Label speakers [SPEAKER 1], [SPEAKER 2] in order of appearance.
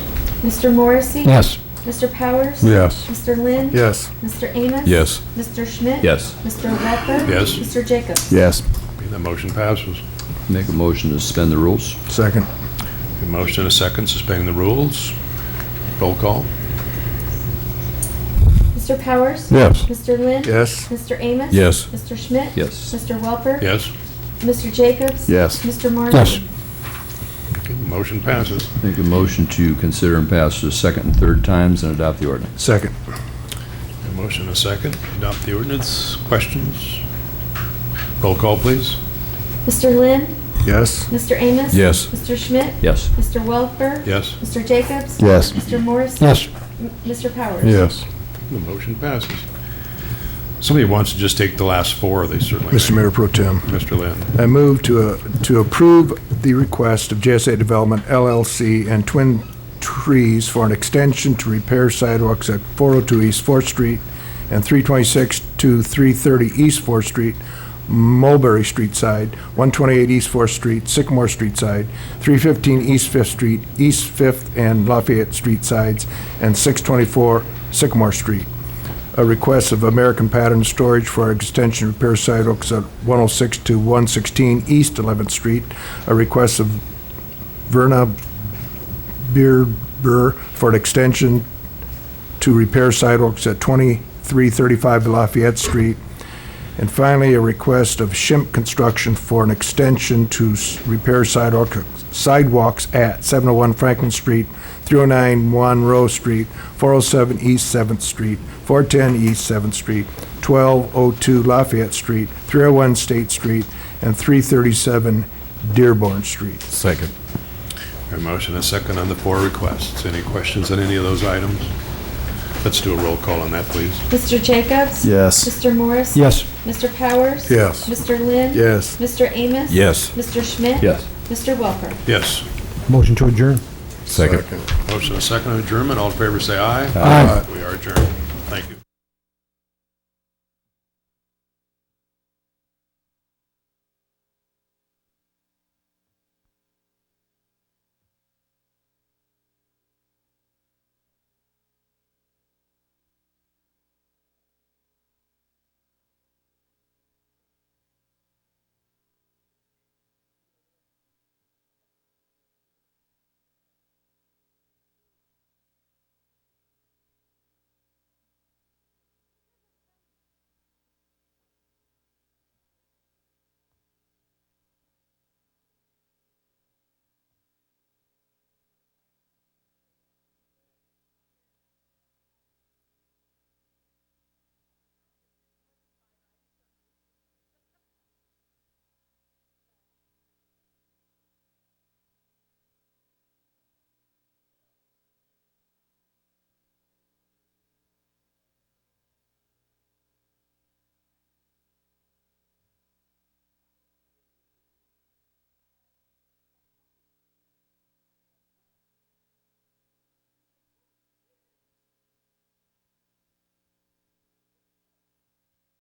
[SPEAKER 1] Mr. Morrissey?
[SPEAKER 2] Yes.
[SPEAKER 1] Mr. Powers?
[SPEAKER 3] Yes.
[SPEAKER 1] Mr. Lynn?
[SPEAKER 3] Yes.
[SPEAKER 1] Mr. Amos?
[SPEAKER 4] Yes.
[SPEAKER 1] Mr. Schmidt?
[SPEAKER 4] Yes.
[SPEAKER 1] Mr. Welper?
[SPEAKER 3] Yes.
[SPEAKER 1] Mr. Jacobs?
[SPEAKER 2] Yes.
[SPEAKER 3] The motion passes.
[SPEAKER 4] Make a motion to suspend the rules?
[SPEAKER 2] Second.
[SPEAKER 3] A motion and a second, suspending the rules. Roll call.
[SPEAKER 1] Mr. Powers?
[SPEAKER 2] Yes.
[SPEAKER 1] Mr. Lynn?
[SPEAKER 3] Yes.
[SPEAKER 1] Mr. Amos?
[SPEAKER 4] Yes.
[SPEAKER 1] Mr. Schmidt?
[SPEAKER 4] Yes.
[SPEAKER 1] Mr. Welper?
[SPEAKER 3] Yes.
[SPEAKER 1] Mr. Jacobs?
[SPEAKER 2] Yes.
[SPEAKER 1] Mr. Morrissey?
[SPEAKER 2] Yes.
[SPEAKER 3] The motion passes.
[SPEAKER 4] Make a motion to consider and pass the second and third times and adopt the ordinance?
[SPEAKER 2] Second.
[SPEAKER 3] A motion and a second, adopt the ordinance. Questions? Roll call, please.
[SPEAKER 1] Mr. Lynn?
[SPEAKER 2] Yes.
[SPEAKER 1] Mr. Amos?
[SPEAKER 4] Yes.
[SPEAKER 1] Mr. Schmidt?
[SPEAKER 4] Yes.
[SPEAKER 1] Mr. Welper?
[SPEAKER 3] Yes.
[SPEAKER 1] Mr. Jacobs?
[SPEAKER 2] Yes.
[SPEAKER 1] Mr. Morrissey?
[SPEAKER 2] Yes.
[SPEAKER 1] M- Mr. Powers?
[SPEAKER 2] Yes.
[SPEAKER 3] The motion passes. Somebody wants to just take the last four, they certainly may.
[SPEAKER 5] Mr. Mayor Pro Tem,
[SPEAKER 3] Mr. Lynn.
[SPEAKER 5] I move to, uh, to approve the request of JSA Development LLC and Twin Trees for an extension to repair sidewalks at 402 East Fourth Street and 326 to 330 East Fourth Street, Mulberry Street side, 128 East Fourth Street, Sycamore Street side, 315 East Fifth Street, East Fifth and Lafayette Street sides, and 624 Sycamore Street a request of American Pattern Storage for our extension repair sidewalks at 106 to 116 East 11th Street, a request of Verna Beerber for an extension to repair sidewalks at 2335 Lafayette Street, and finally, a request of Shimp Construction for an extension to s- repair sidewalk, sidewalks at 701 Franklin Street, 309 Monroe Street, 407 East 7th Street, 410 East 7th Street, 1202 Lafayette Street, 301 State Street, and 337 Dearborn Street.
[SPEAKER 2] Second.
[SPEAKER 3] A motion and a second on the four requests. Any questions on any of those items? Let's do a roll call on that, please.
[SPEAKER 1] Mr. Jacobs?
[SPEAKER 2] Yes.
[SPEAKER 1] Mr. Morris?
[SPEAKER 2] Yes.
[SPEAKER 1] Mr. Powers?
[SPEAKER 5] Yes.
[SPEAKER 1] Mr. Lynn?
[SPEAKER 5] Yes.
[SPEAKER 1] Mr. Amos?
[SPEAKER 4] Yes.
[SPEAKER 1] Mr. Schmidt?
[SPEAKER 4] Yes.
[SPEAKER 1] Mr. Welper?
[SPEAKER 3] Yes.
[SPEAKER 2] Motion to adjourn.
[SPEAKER 4] Second.
[SPEAKER 3] Motion and a second on adjournment. All in favor, say aye.
[SPEAKER 2] Aye.
[SPEAKER 3] We are adjourned. Thank you.